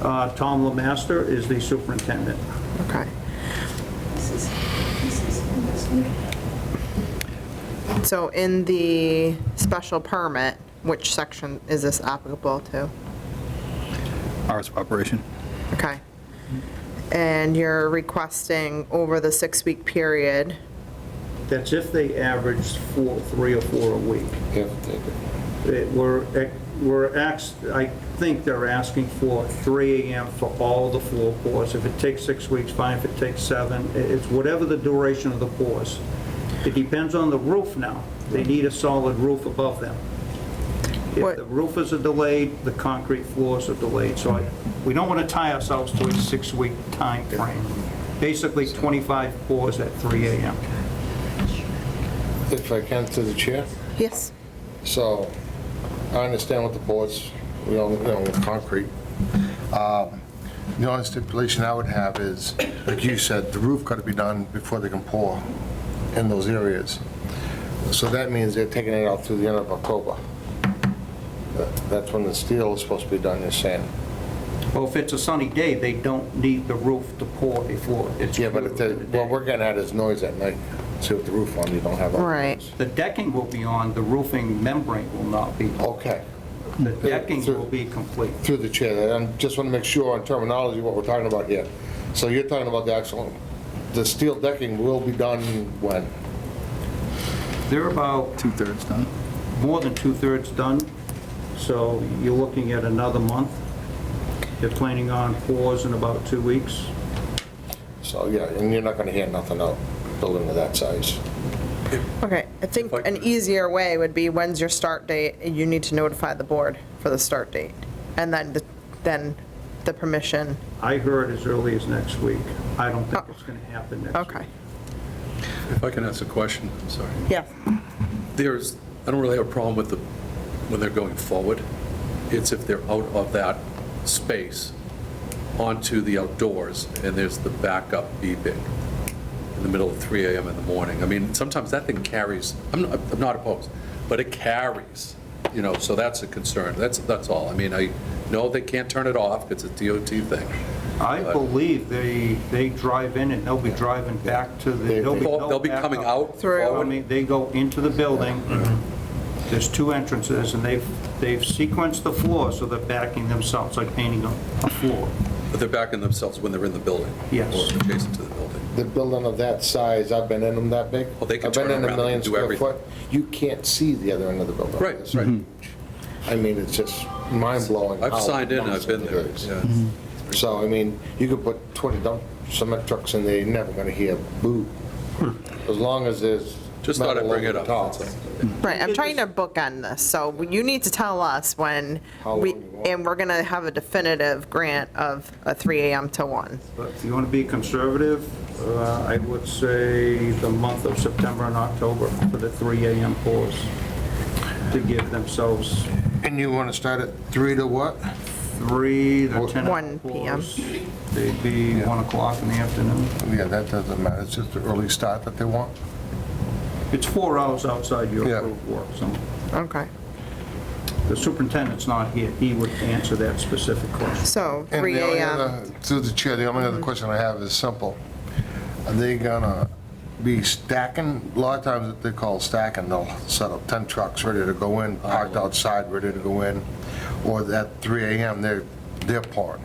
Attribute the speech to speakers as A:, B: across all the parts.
A: Uh, Tom Lemaster is the superintendent.
B: Okay. So in the special permit, which section is this applicable to?
C: hours of operation.
B: Okay. And you're requesting over the six-week period,
A: That's if they averaged four, three or four a week.
D: Yeah, take it.
A: It- We're, we're, ax- I think they're asking for 3 AM for all the floor pours. If it takes six weeks, fine, if it takes seven, i- it's whatever the duration of the pours. It depends on the roof now. They need a solid roof above them. If
B: What-
A: the roofers are delayed, the concrete floors are delayed, so I- we don't want to tie ourselves to a six-week time frame. Basically, 25 pours at 3 AM.
D: If I can, to the chair.
B: yes?
D: So I understand what the boards, we all, you know, with concrete. Um, The only stipulation I would have is, like you said, the roof got to be done before they can pour in those areas. So that means they're taking it out through the end of October. That- That's when the steel is supposed to be done, you're saying.
A: Well, if it's a sunny day, they don't need the roof to pour before it's...
D: Yeah, but if they, what we're getting at is noise at night. See with the roof on, you don't have. that.
B: Right.
A: The decking will be on, the roofing membrane will not be.
D: Okay.
A: The
D: uh,
A: decking will be complete.
D: Through the chair, there, and just want to make sure on terminology what we're talking about here. So you're talking about the actual, the steel decking will be done when?
A: They're about
C: Two-thirds done.
A: more than two-thirds done, so you're looking at another month. They're planning on pours in about two weeks.
D: So, yeah, and you're not going to hear nothing out, building of that size.
B: Okay, I think an easier way would be, when's your start date? And You need to notify the board for the start date. And then, the- then the permission,
A: I heard as early as next week. I don't
D: Oh.
A: think it's going to happen next week.
B: okay.
E: If I can ask a question, I'm sorry.
B: Yes,
E: There's, I don't really have a problem with the, when they're going forward. It's if they're out of that space onto the outdoors, and there's the backup beeping in the middle of 3 AM in the morning. I mean, sometimes that thing carries, I'm not, I'm not opposed, but it carries, you know, so that's a concern. That's, that's all. I mean, I know they can't turn it off, it's a DOT thing.
A: I believe they, they drive in and they'll be driving back to the.
D: They'll
A: be-
E: They'll be
A: back up.
E: coming out
B: Through.
A: I
E: forward.
A: mean, they go into the building,
E: Mm-hmm.
A: there's two entrances, and they've, they've sequenced the floor, so they're backing themselves, like painting a a floor.
E: But they're backing themselves when they're in the building?
A: Yes.
E: Or adjacent to the building?
D: The building of that size, I've been in them that big.
E: Well, they can
D: I've been
E: turn
D: in a
E: around
D: million
E: and do
D: square
E: everything.
D: foot. You can't see the other end of the building.
E: Right,
D: It's
E: right.
D: huge. I mean, it's just mind-blowing. how
E: I've signed in, I've been there, Mm-hmm.
D: massive it is.
E: yeah.
D: So, I mean, you could put 20 dump cement trucks in there, you're never going to hear boo, as long as there's.
E: Hmm. Just thought I'd
D: metal
E: bring it
D: over
E: up,
D: top.
E: that's all.
B: right, I'm trying to bookend this, so you need to tell us when
D: How
B: we,
D: long you want.
B: and we're gonna have a definitive grant of a 3 AM to 1.
A: But if you want to be conservative, uh, I would say the month of September and October for the 3 AM pours to give themselves
D: And you want to start at 3 to what?
A: three, the 10
B: 1 p.m.
A: pours. They'd be 1 o'clock in the afternoon.
D: Yeah, that doesn't matter, it's just the early start that they want.
A: It's four hours outside your
D: Yeah.
A: approved work, so
B: Okay,
A: the superintendent's not here. He would answer that specific question.
B: so
D: And
B: 3
D: the only
B: AM.
D: other- Through the chair, the only other question I have is simple. Are they gonna be stacking? A lot of times they call stacking, they'll set up 10 trucks ready to go in, parked outside, ready to go in, or at 3 AM, they're, they're pouring.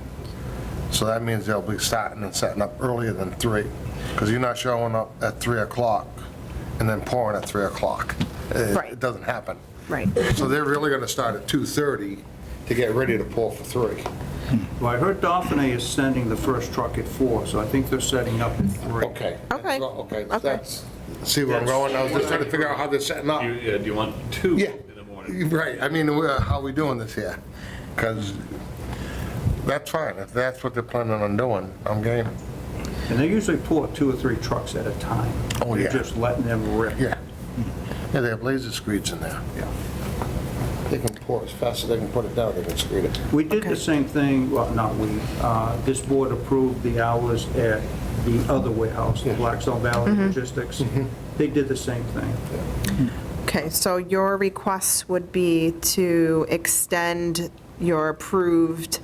D: So that means they'll be starting and setting up earlier than 3, because you're not showing up at 3 o'clock and then pouring at 3 o'clock. It-
B: Right.
D: It doesn't happen.
B: Right.
D: So they're really gonna start at 2:30 to get ready to pour for 3.
A: Well, I heard Dauphine is sending the first truck at four, so I think they're setting up at three.
D: Okay.
B: Okay.
D: Okay,
B: Okay.
D: that's, see where I'm going, I was just trying to figure out how they're setting up.
F: You, yeah, do you want two
D: Yeah,
F: in the morning?
D: right, I mean, we're- how we doing this here? Because that's fine, if that's what they're planning on doing, I'm game.
A: And they usually pour two or three trucks at a time.
D: Oh, yeah.
A: They're just letting them rip.
D: Yeah. Yeah, they have laser screeds in there.
A: Yeah.
D: They can pour as fast as they can put it down, they can screed it.
A: We did the same thing, well, not we, uh, this board approved the hours at the other warehouse, the Blackstone Valley Logistics.
D: Mm-hmm.
A: They did the same thing.
B: Okay, so your request would be to extend your approved